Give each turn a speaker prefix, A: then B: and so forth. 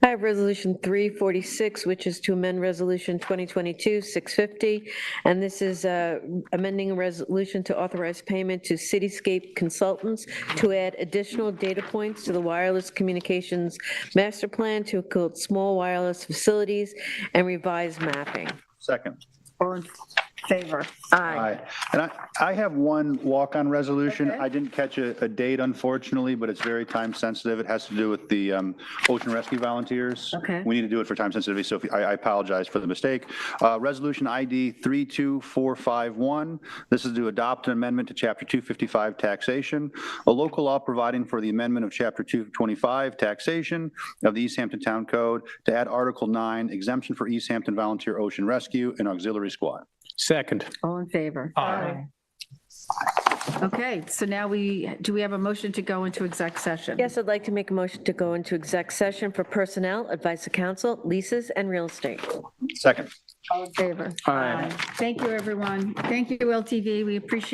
A: have Resolution 346, which is to amend Resolution 2022-650, and this is uh, amending a resolution to authorize payment to Cityscape Consultants to add additional data points to the wireless communications master plan to include small wireless facilities and revised mapping.
B: Second.
C: All in favor?
B: Aye. And I, I have one walk-on resolution.
C: Okay.
B: I didn't catch a, a date unfortunately, but it's very time sensitive. It has to do with the um, ocean rescue volunteers.
C: Okay.
B: We need to do it for time sensitivity, so if- I, I apologize for the mistake. Uh, Resolution ID 32451. This is to adopt an amendment to Chapter 255 taxation, a local law providing for the amendment of Chapter 225 taxation of the East Hampton Town Code to add Article 9 exemption for East Hampton Volunteer Ocean Rescue and Auxiliary Squad.
D: Second.
C: All in favor?
D: Aye.
C: Okay, so now we, do we have a motion to go into exec session?
A: Yes, I'd like to make a motion to go into exec session for personnel, advice of counsel, leases, and real estate.
B: Second.
C: All in favor?
D: Aye.
C: Thank you, everyone. Thank you, LTV. We appreciate